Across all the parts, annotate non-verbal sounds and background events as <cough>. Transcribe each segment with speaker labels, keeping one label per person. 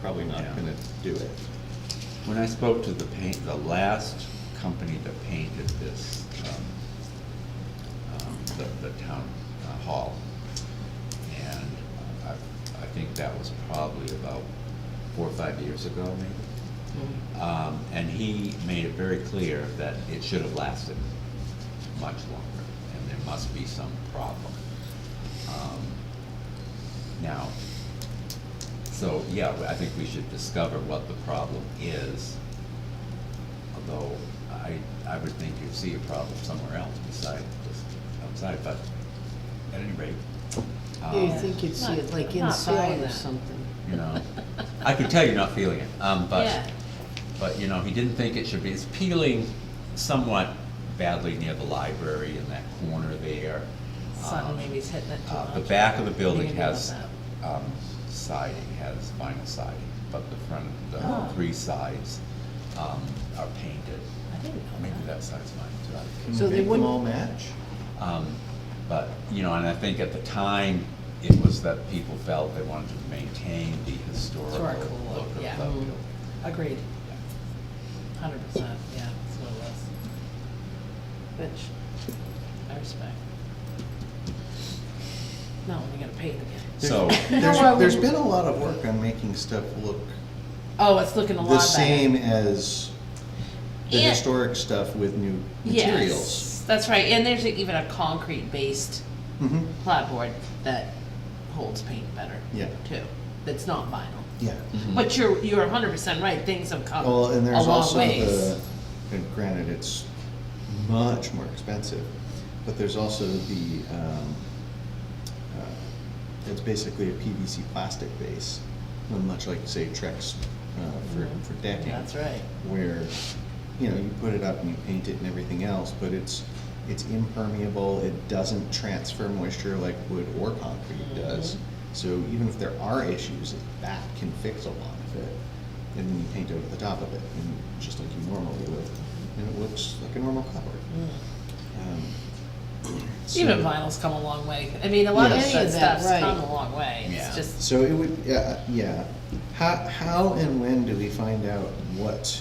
Speaker 1: probably not
Speaker 2: Yeah.
Speaker 1: gonna do it.
Speaker 2: When I spoke to the paint, the last company that painted this, um, um, the, the town uh, hall, and I, I think that was probably about four or five years ago, maybe. Um, and he made it very clear that it should have lasted much longer, and there must be some problem. Um, Now, so, yeah, I think we should discover what the problem is, although I, I would think you'd see a problem somewhere else beside just outside, but at any rate.
Speaker 3: Yeah,
Speaker 2: um,
Speaker 3: you think you'd see it like
Speaker 4: Oh, Not- not
Speaker 3: inside
Speaker 4: buying
Speaker 3: or
Speaker 4: that.
Speaker 3: something.
Speaker 2: You know, I could tell you're not feeling it, um,
Speaker 4: Yeah.
Speaker 2: but, but, you know, he didn't think it should be, it's peeling somewhat badly near the library in that corner there.
Speaker 4: Sun
Speaker 2: um,
Speaker 4: maybe is hitting it too
Speaker 2: uh, The
Speaker 4: much.
Speaker 2: back of the building
Speaker 4: Maybe about
Speaker 2: has
Speaker 4: that.
Speaker 2: um, siding, has vinyl siding, but the front,
Speaker 4: Oh.
Speaker 2: the three sides um, are painted.
Speaker 4: I didn't know
Speaker 2: Maybe
Speaker 4: that.
Speaker 2: that side's mine
Speaker 1: Can
Speaker 3: So
Speaker 1: we
Speaker 3: they
Speaker 1: make them
Speaker 3: wouldn't-
Speaker 1: all match?
Speaker 2: too. Um, But, you know, and I think at the time, it was that people felt they wanted to maintain the historical look
Speaker 4: Historical look,
Speaker 2: of the
Speaker 4: yeah.
Speaker 2: building.
Speaker 4: Agreed,
Speaker 2: Yeah.
Speaker 4: hundred percent, yeah, that's what it was. Which, I respect. Not when you gotta pay it again.
Speaker 3: <laughs>
Speaker 2: So,
Speaker 1: There's,
Speaker 3: No, I
Speaker 1: there's
Speaker 3: wouldn't.
Speaker 1: been a lot of work on making stuff look
Speaker 4: Oh, it's looking a lot better.
Speaker 1: the same as the
Speaker 4: And-
Speaker 1: historic stuff with new materials.
Speaker 4: Yes, that's right, and there's even a concrete-based
Speaker 1: Mhm.
Speaker 4: platform that holds paint better.
Speaker 1: Yeah.
Speaker 4: Too, that's not vinyl.
Speaker 1: Yeah.
Speaker 4: But you're, you're hundred percent right, things have come Mm-hmm. a
Speaker 1: Mm. Well, and there's
Speaker 4: long
Speaker 1: also
Speaker 4: ways.
Speaker 1: the, and granted, it's much more expensive, but there's also the, um, uh, it's basically a PVC plastic base, and much like, say, Trex, uh, for, for decking.
Speaker 4: Mm-hmm. That's right.
Speaker 1: Where, you know, you put it up and you paint it and everything else, but it's, it's impermeable, it doesn't transfer moisture like wood or concrete does. So even if there are issues, that can fix a lot of it. And then you paint over the top of it, and just like you normally would, and it looks like a normal cupboard. Um,
Speaker 4: Mm. Even
Speaker 1: so-
Speaker 4: vinyl's come a long way, I mean, a lot of
Speaker 1: Yes.
Speaker 4: that
Speaker 3: Any of that,
Speaker 4: stuff's
Speaker 3: right.
Speaker 4: come a long way, it's
Speaker 2: Yeah.
Speaker 4: just,
Speaker 1: So it would, yeah, yeah. How, how and when do we find out what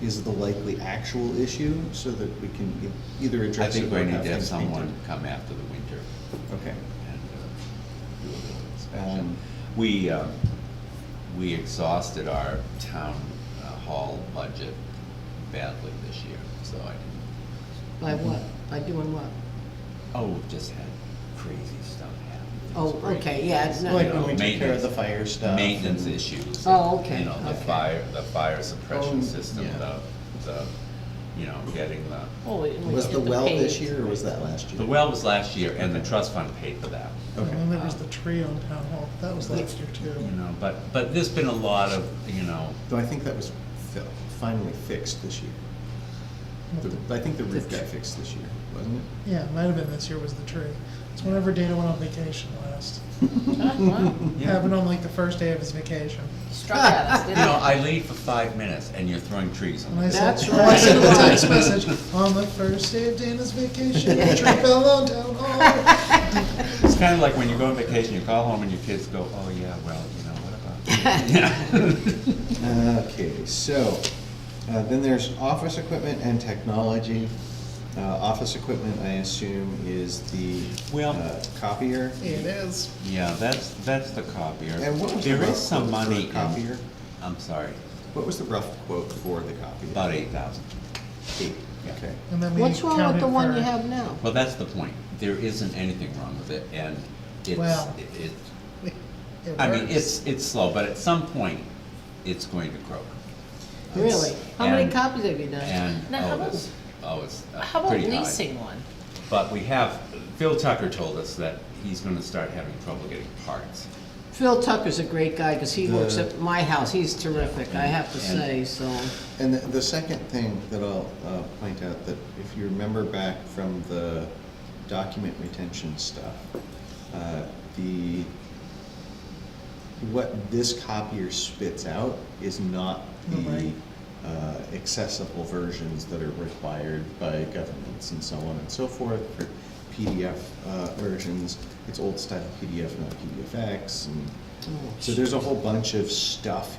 Speaker 1: is the likely actual issue so that we can e- either
Speaker 2: I
Speaker 1: address it
Speaker 2: think
Speaker 1: or
Speaker 2: we
Speaker 1: have
Speaker 2: need to have
Speaker 1: things
Speaker 2: someone
Speaker 1: painted?
Speaker 2: come after the winter.
Speaker 1: Okay.
Speaker 2: and uh, do a little inspection.
Speaker 1: Um,
Speaker 2: We, um, we exhausted our town uh, hall budget badly this year, so I didn't,
Speaker 3: By
Speaker 4: Mm-hmm.
Speaker 3: what? By doing what?
Speaker 2: oh, we've just had crazy stuff happen. It's
Speaker 3: Oh,
Speaker 2: great.
Speaker 3: okay, yeah, it's not-
Speaker 1: Like when we took care of
Speaker 2: Maintenance-
Speaker 1: the fire stuff.
Speaker 2: Maintenance
Speaker 1: and-
Speaker 2: issues.
Speaker 3: Oh, okay,
Speaker 2: You know, the
Speaker 3: okay.
Speaker 2: fire, the fire
Speaker 1: Oh,
Speaker 2: suppression system,
Speaker 1: yeah.
Speaker 2: the, the, you know, getting the,
Speaker 4: holy. and we
Speaker 1: Was
Speaker 4: did
Speaker 1: the well
Speaker 4: paint.
Speaker 1: this year or was that last year?
Speaker 2: the well was last year, and the trust fund paid for that.
Speaker 1: Okay.
Speaker 5: And there was the tree on Town Hall, that was last year too.
Speaker 2: You know, but, but there's been a lot of, you know,
Speaker 1: Though I think that was fi- finally fixed this year. The- I think the roof got fixed this year, wasn't it?
Speaker 5: Yeah, it might have been this year was the tree. It's whenever Dana went on vacation last.
Speaker 4: Ah,
Speaker 1: <laughs>
Speaker 4: wow.
Speaker 2: Yeah.
Speaker 5: Happened on like the first day of his vacation.
Speaker 4: Struck at
Speaker 1: <laughs>
Speaker 4: us,
Speaker 2: You
Speaker 4: didn't
Speaker 2: know,
Speaker 4: it?
Speaker 2: I leave for five minutes and you're throwing trees on
Speaker 5: And
Speaker 2: me.
Speaker 5: I sent,
Speaker 3: That's
Speaker 5: <laughs> I sent a
Speaker 2: <laughs>
Speaker 3: right.
Speaker 5: text message, on the first day of Dana's vacation, the
Speaker 3: <laughs>
Speaker 5: tree fell on Town Hall.
Speaker 4: Oh.
Speaker 2: It's kind of like when you go on vacation, you call home and your kids go, oh yeah, well, you know, what about? <laughs> you?" Yeah.
Speaker 1: Okay, so, uh, then there's office equipment and technology. Uh, office equipment, I assume, is the
Speaker 2: Well-
Speaker 1: uh, copier.
Speaker 5: It is.
Speaker 2: Yeah, that's, that's the copier.
Speaker 1: And what was the
Speaker 2: There
Speaker 1: rough
Speaker 2: is some
Speaker 1: quote for
Speaker 2: money
Speaker 1: a
Speaker 2: in-
Speaker 1: copier?
Speaker 2: I'm sorry,
Speaker 1: What was the rough quote for the copier?
Speaker 2: about eight thousand.
Speaker 1: Eight, okay.
Speaker 5: And then we
Speaker 3: What's wrong
Speaker 5: counted
Speaker 3: with the one
Speaker 5: for-
Speaker 3: you
Speaker 5: <laughs>
Speaker 3: have now?
Speaker 2: Well, that's the point. There isn't anything wrong with it and it's,
Speaker 5: Well-
Speaker 2: it,
Speaker 5: It
Speaker 2: I mean,
Speaker 5: works.
Speaker 2: it's, it's slow, but at some point, it's going to croak.
Speaker 3: Really? How many
Speaker 2: and-
Speaker 3: copies have you done?
Speaker 2: And,
Speaker 4: Now, how
Speaker 2: oh,
Speaker 4: about-
Speaker 2: it's, oh, it's uh,
Speaker 4: How about
Speaker 2: pretty high.
Speaker 4: leasing one?
Speaker 2: But we have, Phil Tucker told us that he's gonna start having trouble getting parts.
Speaker 3: Phil Tucker's a great guy, because he works
Speaker 1: The-
Speaker 3: at my house, he's terrific, I have to
Speaker 2: And-
Speaker 3: say, so.
Speaker 1: And the, the second thing that I'll, uh, point out, that if you remember back from the document retention stuff, uh, the, what this copier spits out is not the,
Speaker 5: Right.
Speaker 1: uh, accessible versions that are required by governments and so on and so forth, for PDF, uh, versions. It's old style PDF, not PDFX, and, so there's a whole bunch of stuff